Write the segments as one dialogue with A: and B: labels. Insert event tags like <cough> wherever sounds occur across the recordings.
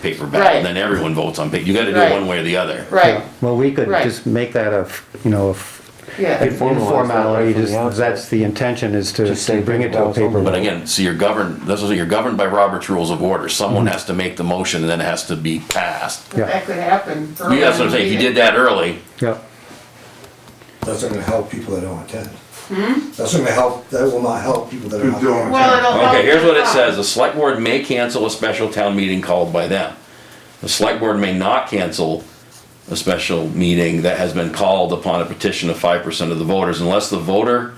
A: paper ballot,
B: Right.
A: then everyone votes on paper. You gotta do it
B: Right.
A: one way or the other.
B: Right,
C: Well, we could
B: Right.
C: just make that a, f- you know, a f-
B: yeah,
C: informality,
D: from the
C: just-
D: outset.
C: that's the intention, is to
D: Just say
C: to bring it to a
D: balls only.
C: paper.
A: But
C: vote.
A: again, so you're governed, that's what, you're governed by Robert's Rules of Order. Someone has to make the motion and then it has to be passed.
C: Yeah.
B: that could happen.
A: You that's what I'm saying. If you did that early,
C: Yep,
E: That's not gonna help people that don't attend. That's not gonna help, that will not help people that are not
F: don't.
E: there.
B: Well, it'll help.
A: Okay, here's what it
B: us.
A: says, the select board may cancel a special town meeting called by them. The select board may not cancel a special meeting that has been called upon a petition of five percent of the voters unless the voter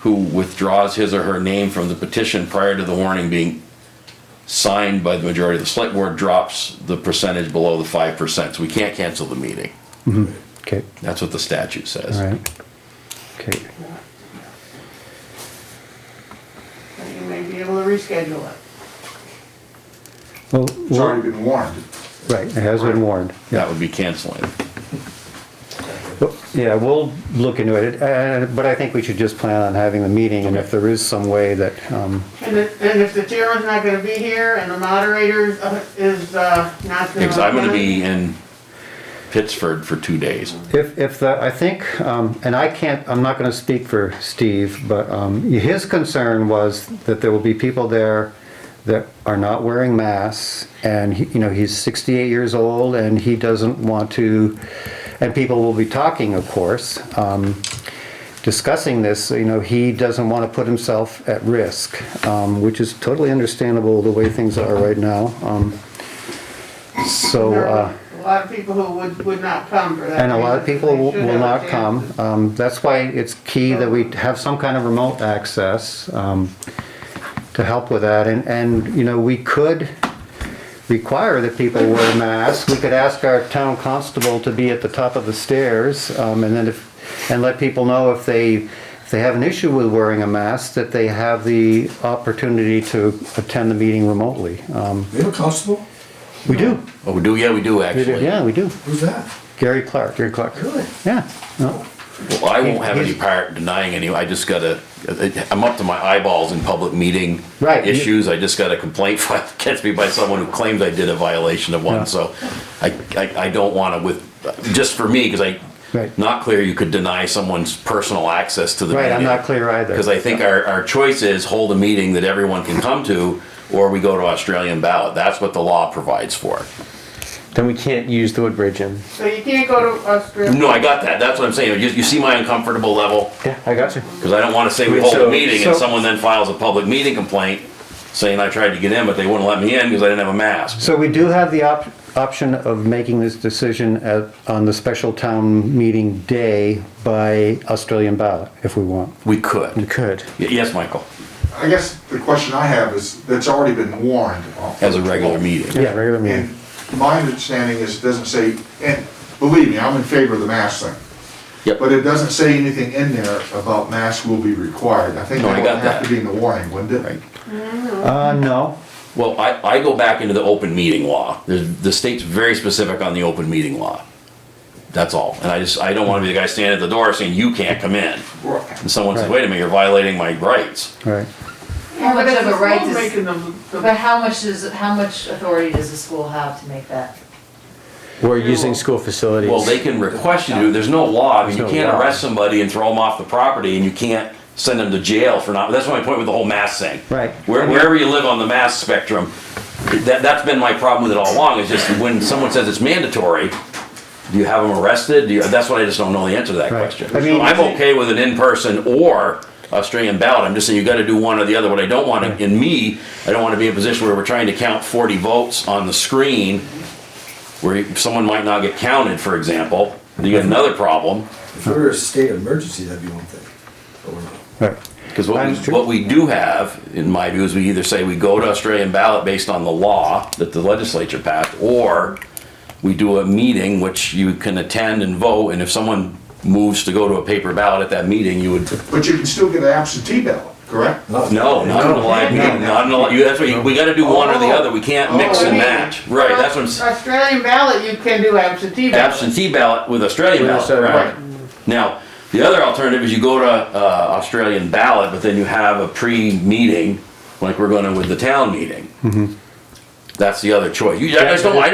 A: who withdraws his or her name from the petition prior to the warning being signed by the majority of the select board drops the percentage below the five percent, so we can't cancel the meeting.
C: okay,
A: That's what the statute says.
C: all right. Okay,
B: You may be able to reschedule it.
C: well,
F: It's
C: wa-
F: already been warned.
C: right, it has been warned.
A: That would be canceling.
C: Well, Yeah, we'll look into it, uh, but I think we should just plan on having the meeting, and if there is some way that, um,
B: And if, and if the chairman's not gonna be here and the moderator uh, is, uh, not gonna.
A: Because I'm gonna be in Pittsford for two days.
C: If, if the, I think, um, and I can't, I'm not gonna speak for Steve, but, um, his concern was that there will be people there that are not wearing masks, and he, you know, he's sixty-eight years old, and he doesn't want to, and people will be talking, of course, um, discussing this, you know, he doesn't wanna put himself at risk, um, which is totally understandable the way things are right now, um, so,
B: There
C: uh.
B: are A lot of people who would, would not come for that.
C: And a lot of
B: reason.
C: people will
B: They should
C: will
B: have a
C: not
B: chance.
C: come. Um, That's why it's key that we have some kind of remote access um, to help with that. And, and, you know, we could require that people wear masks. We could ask our town constable to be at the top of the stairs um, and then if, and let people know if they, if they have an issue with wearing a mask, that they have the opportunity to attend the meeting remotely. Um,
E: We have a constable?
C: We do,
A: Oh, we do, yeah, we do actually.
C: yeah, we do.
E: Who's that?
C: Gary Clark. Gary Clark.
E: Really?
C: Yeah, no,
A: Well, I won't have any part denying any, I just gotta, I'm up to my eyeballs in public meeting.
C: Right.
A: Issues, I just got a complaint <laughs> filed against me by someone who claims I did a violation of
C: Yeah.
A: one, so I, I, I don't wanna with, just for me, cause I,
C: Right.
A: not clear you could deny someone's personal access to the meeting.
C: right, I'm not clear either.
A: Because I think our, our choice is hold a meeting that everyone can come to, or we go to Australian ballot, that's what the law provides for.
D: Then we can't use the Woodbridge Inn.
B: So you can't go to Australia.
A: No, I got that, that's what I'm saying, you, you see my uncomfortable level?
D: Yeah, I got you.
A: Because I don't want to say we hold a
D: So-
A: meeting and
D: so-
A: someone then files a public meeting complaint saying I tried to get in, but they wouldn't let me in because I didn't have a mask.
C: So we do have the op- option of making this decision at, on the special town meeting day by Australian ballot, if we want.
A: We could.
D: You could.
A: Y- Yes, Michael,
F: I guess the question I have is, that's already been warned.
A: as a regular meeting.
C: Yeah, regular
F: And my understanding is, it doesn't say, and believe me, I'm in favor of the mask thing.
A: Yep.
F: But it doesn't say anything in there about masks will be required. I think
A: No, I
F: that would
A: got
F: have
A: that.
F: to be in the warning, wouldn't it?
C: Uh, no,
A: Well, I, I go back into the open meeting law. The, the state's very specific on the open meeting law. That's all. And I just, I don't want to be the guy standing at the door saying, you can't come in. And someone says,
C: Right.
A: wait a minute, you're violating my rights.
C: all right.
G: How
B: But
G: much
B: it's
G: of a right
B: still
G: does,
B: making them- the-
G: but how much does, how much authority does the school have to make that?
D: We're using school facilities.
A: Well, they can request you, to. there's no law, I mean, you
D: There's no
A: can't
D: law.
A: arrest somebody and throw them off the property, and you can't send them to jail for not, that's my point with the whole mask thing.
C: Right.
A: Where- Wherever you live on the mask spectrum, that, that's been my problem with it all along, is just when someone says it's mandatory, do you have them arrested? Do you, that's what I just don't know the answer to that
C: Right.
A: question.
C: I mean-
A: I'm okay with an in-person or Australian ballot, I'm just saying you gotta do one or the other, what I don't wanna, in me, I don't wanna be in a position where we're trying to count forty votes on the screen where someone might not get counted, for example, you get another problem.
E: If we were a state emergency, that'd be one thing. But we're not.
C: Right.
A: Because what,
C: That's
A: we-
C: true.
A: what we do have, in my view, is we either say we go to Australian ballot based on the law that the legislature passed, or we do a meeting which you can attend and vote, and if someone moves to go to a paper ballot at that meeting, you would,
F: But you can still get an absentee ballot, correct?
E: Not-
A: no, not in a live meeting, not in a, li- you, that's what, you- we gotta do one or the other, we can't mix
B: Oh, I
A: and
B: mean,
A: match. Right, that's what I'm, s-
B: Australian ballot, you can do absentee ballot.
A: absentee ballot with Australian ballot,
D: Yes,
A: right?
F: Right.
A: Now, the other alternative is you go to uh, Australian ballot, but then you have a pre-meeting, like we're going to with the town meeting. That's the other choice. You, Mm-hmm. I just don't, I